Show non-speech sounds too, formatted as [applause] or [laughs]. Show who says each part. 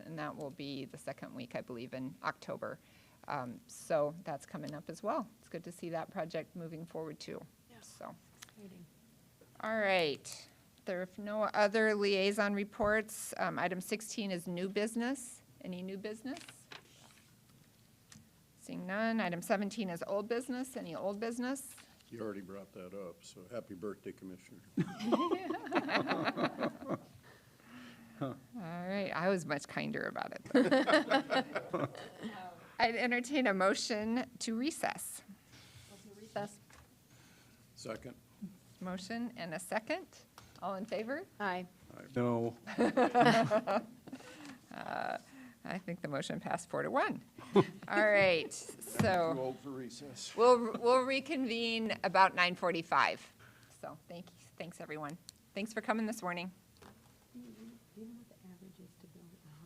Speaker 1: that will be the second week, I believe, in October. Um, so that's coming up as well. It's good to see that project moving forward too. So. All right. There are no other liaison reports. Um, item sixteen is new business. Any new business? Seeing none. Item seventeen is old business. Any old business?
Speaker 2: You already brought that up, so happy birthday, Commissioner.
Speaker 1: All right, I was much kinder about it. [laughs] I'd entertain a motion to recess.
Speaker 2: Second?
Speaker 1: Motion and a second. All in favor?
Speaker 3: Aye.
Speaker 4: No.
Speaker 1: I think the motion passed four to [laughs] one. All right,
Speaker 2: Too
Speaker 1: so
Speaker 2: old for recess.
Speaker 1: we'll, we'll reconvene about 9:45. So thank, thanks, everyone. Thanks for coming this morning.